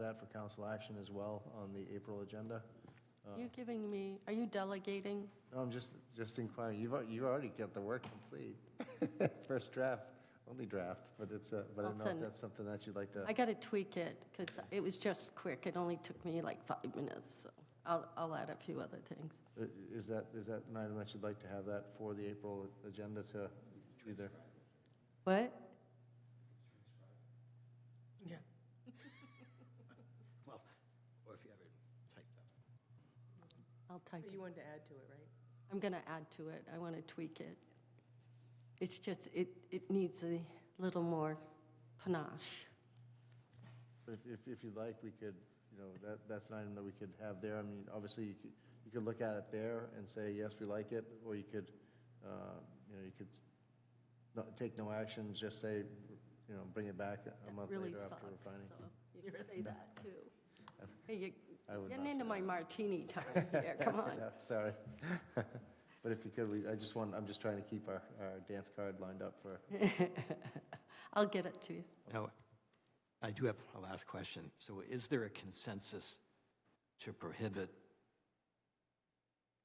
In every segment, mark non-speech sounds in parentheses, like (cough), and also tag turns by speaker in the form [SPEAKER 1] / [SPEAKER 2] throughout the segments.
[SPEAKER 1] that for council action as well on the April agenda.
[SPEAKER 2] You're giving me, are you delegating?
[SPEAKER 1] No, I'm just, just inquiring, you've, al- you've already got the work complete. (laughs) First draft, only draft, but it's, uh, but I
[SPEAKER 2] I'll
[SPEAKER 1] don't know if
[SPEAKER 2] send it.
[SPEAKER 1] that's something that you'd like to.
[SPEAKER 2] I got to tweak it because it was just quick. It only took me like five minutes, so I'll, I'll add a few other things.
[SPEAKER 1] I- Is that, is that an item that you'd like to have that for the April agenda to be there?
[SPEAKER 2] What?
[SPEAKER 1] (laughs)
[SPEAKER 2] Yeah.
[SPEAKER 3] Well, or if you have it typed up.
[SPEAKER 2] I'll type
[SPEAKER 4] But
[SPEAKER 2] it.
[SPEAKER 4] you wanted to add to it, right?
[SPEAKER 2] I'm going to add to it. I want to tweak it. It's just, it, it needs a little more panache.
[SPEAKER 1] But if- if, if you'd like, we could, you know, that, that's an item that we could have there. I mean, obviously, you could, you could look at it there and say, yes, we like it, or you could, uh, you know, you could s- not, take no action, just say, you know, bring it back a month
[SPEAKER 2] Really
[SPEAKER 1] later
[SPEAKER 2] sucks.
[SPEAKER 1] after refining.
[SPEAKER 2] so You can say that too. Hey, you-
[SPEAKER 1] I would
[SPEAKER 2] Getting
[SPEAKER 1] not
[SPEAKER 2] into
[SPEAKER 1] say
[SPEAKER 2] my
[SPEAKER 5] (laughs)
[SPEAKER 2] martini time here,
[SPEAKER 1] (laughs)
[SPEAKER 2] come on.
[SPEAKER 1] No, Sorry. But if you could, we, I just want, I'm just trying to keep our, our dance card lined up for,
[SPEAKER 2] I'll get it to you.
[SPEAKER 3] Now, I do have a last question. So is there a consensus to prohibit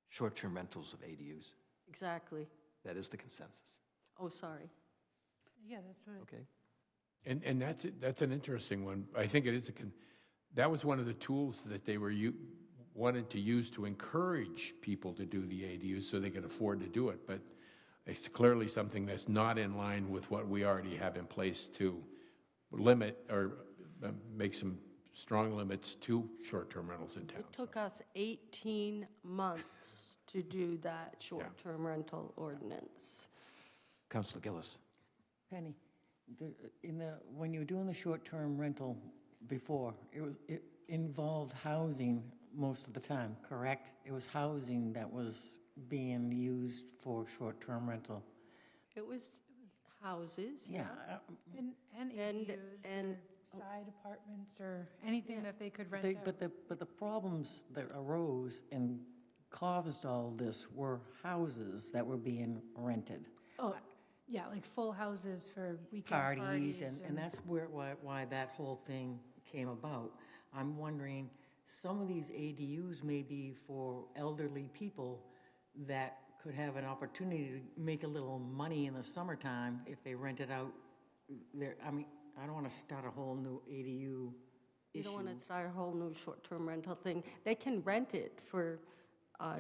[SPEAKER 3] short-term rentals of ADUs?
[SPEAKER 2] Exactly.
[SPEAKER 3] That is the consensus,
[SPEAKER 2] Oh, sorry.
[SPEAKER 6] Yeah, that's right.
[SPEAKER 3] okay?
[SPEAKER 7] And, and that's, that's an interesting one. I think it is, a con- that was one of the tools that they were, u- wanted to use to encourage people to do the ADU so they could afford to do it. But it's clearly something that's not in line with what we already have in place to limit or uh, make some strong limits to short-term rentals in town.
[SPEAKER 2] It took us 18 months to do that short-term rental ordinance.
[SPEAKER 3] Counselor Gillis?
[SPEAKER 5] Penny, the, in the, when you were doing the short-term rental before, it was, it involved housing most of the time, correct? It was housing that was being used for short-term rental.
[SPEAKER 2] It was houses, yeah.
[SPEAKER 5] Yeah, I-
[SPEAKER 6] And, and
[SPEAKER 2] And-
[SPEAKER 6] ADUs
[SPEAKER 2] and-
[SPEAKER 6] or side apartments or anything that they could rent
[SPEAKER 5] They-
[SPEAKER 6] out.
[SPEAKER 5] But the, but the problems that arose and caused all this were houses that were being rented.
[SPEAKER 6] Oh, yeah, like full houses for weekend
[SPEAKER 5] parties,
[SPEAKER 6] parties.
[SPEAKER 5] and, and that's where, why, why that whole thing came about. I'm wondering, some of these ADUs may be for elderly people that could have an opportunity to make a little money in the summertime if they rent it out there, I mean, I don't wanna start a whole new ADU
[SPEAKER 2] You don't want
[SPEAKER 5] issue.
[SPEAKER 2] to start a whole new short-term rental thing. They can rent it for uh,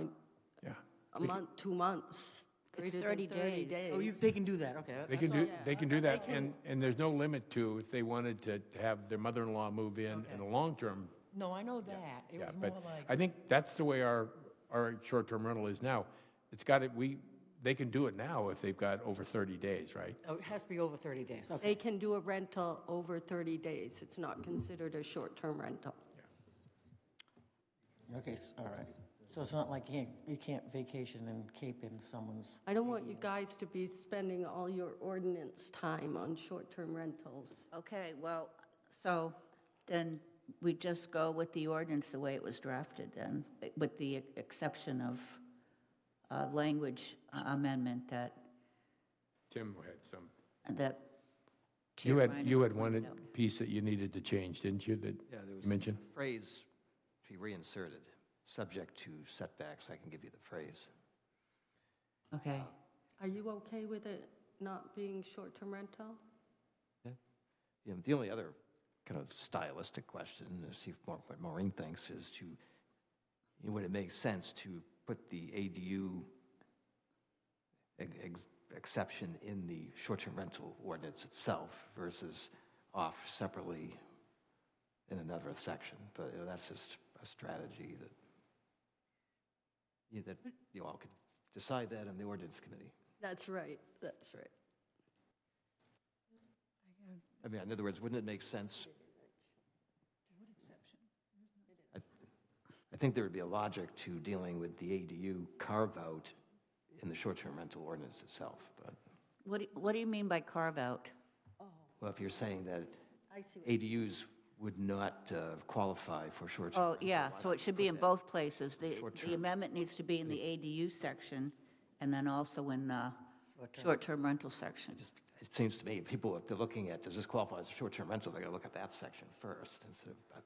[SPEAKER 7] Yeah.
[SPEAKER 2] a month, two months, greater than
[SPEAKER 4] 30
[SPEAKER 2] 30
[SPEAKER 4] days.
[SPEAKER 5] Oh, you,
[SPEAKER 2] days.
[SPEAKER 5] they can do that, okay.
[SPEAKER 7] They can do, they can do that, and, and there's no limit to if they wanted to to have their mother-in-law move in in a long-term
[SPEAKER 5] No, I know that, it
[SPEAKER 7] Yeah,
[SPEAKER 5] was more
[SPEAKER 7] but
[SPEAKER 5] like,
[SPEAKER 7] I think that's the way our, our short-term rental is now. It's got it, we, they can do it now if they've got over 30 days, right?
[SPEAKER 5] oh, it has to be over thirty days, okay.
[SPEAKER 2] They can do a rental over 30 days. It's not considered a short-term rental.
[SPEAKER 5] Okay, s- all right. So it's not like you can't, you can't vacation and cape in someone's
[SPEAKER 2] I don't want you guys to be spending all your ordinance time on short-term rentals.
[SPEAKER 8] Okay, well, so then we just go with the ordinance the way it was drafted then, with the exception of uh, language amendment that,
[SPEAKER 7] Tim had some.
[SPEAKER 8] that.
[SPEAKER 7] You had,
[SPEAKER 8] Chair
[SPEAKER 7] you had
[SPEAKER 8] Reiner
[SPEAKER 7] one
[SPEAKER 8] pointed out.
[SPEAKER 7] piece that you needed to change, didn't you, that
[SPEAKER 3] Yeah, there
[SPEAKER 7] you
[SPEAKER 3] was
[SPEAKER 7] mentioned?
[SPEAKER 3] a phrase to be reinserted, subject to setbacks. I can give you the phrase.
[SPEAKER 8] Okay,
[SPEAKER 2] Are you okay with it not being short-term rental?
[SPEAKER 3] You know, the only other kind of stylistic question, to see if Maur- what Maureen thinks, is to, you know, would it make sense to put the ADU ex- ex- exception in the short-term rental ordinance itself versus off separately in another section? But you know, that's just a strategy that, you know, that you all could decide that in the ordinance committee.
[SPEAKER 2] That's right, that's right.
[SPEAKER 3] I mean, in other words, wouldn't it make sense? I- I think there would be a logic to dealing with the ADU carve-out in the short-term rental ordinance itself, but,
[SPEAKER 8] what, do- what do you mean by carve out?
[SPEAKER 3] well, if you're saying that ADUs would not uh, qualify for short-term.
[SPEAKER 8] Oh, yeah, so it should be in both places. The
[SPEAKER 3] Short-term.
[SPEAKER 8] the amendment needs to be in the ADU section and then also in the short-term rental section.
[SPEAKER 3] Just- It seems to me, people, if they're looking at, does this qualify as a short-term rental, they're going to look at that section first, instead of,